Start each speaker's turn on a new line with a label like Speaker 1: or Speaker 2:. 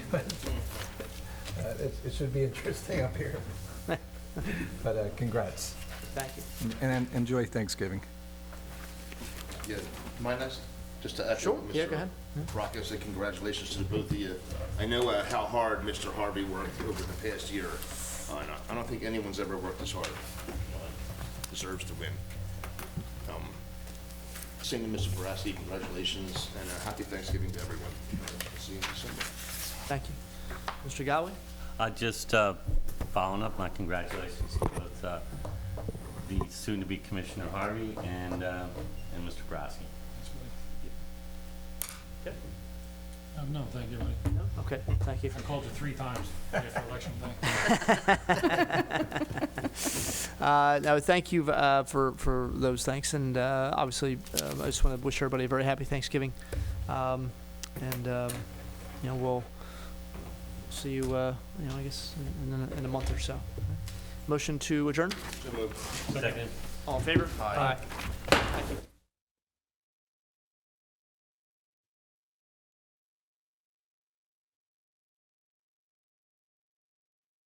Speaker 1: but uh, it it should be interesting up here. But uh, congrats,
Speaker 2: Thank you.
Speaker 1: and en- enjoy Thanksgiving.
Speaker 3: Yeah, mind us, just to echo
Speaker 2: Sure.
Speaker 3: what
Speaker 2: Yeah, go ahead.
Speaker 3: Mr. Rocco said, congratulations to the both of you. I know uh, how hard Mr. Harvey worked over the past year. Uh, and I- I don't think anyone's ever worked this hard. Uh, Deserves to win. Um, Same to Mr. Barassi, congratulations, and a happy Thanksgiving to everyone. See you in December.
Speaker 2: Thank you. Mr. Godwin?
Speaker 4: Uh, Just uh, following up, my congratulations to both uh, the soon-to-be Commissioner Harvey and, uh, and Mr. Brasky.
Speaker 5: Um, no, thank you, buddy.
Speaker 2: Okay, thank you.
Speaker 5: I called you three times after election day.
Speaker 2: Uh, No, thank you uh, for, for those thanks, and uh, obviously, um, I just want to wish everybody a very happy Thanksgiving. Um, And, um, you know, we'll see you, uh, you know, I guess, in- in, a- in a month or so. Motion to adjourn?
Speaker 3: So moved.
Speaker 4: Second.
Speaker 2: All in favor?
Speaker 3: Aye.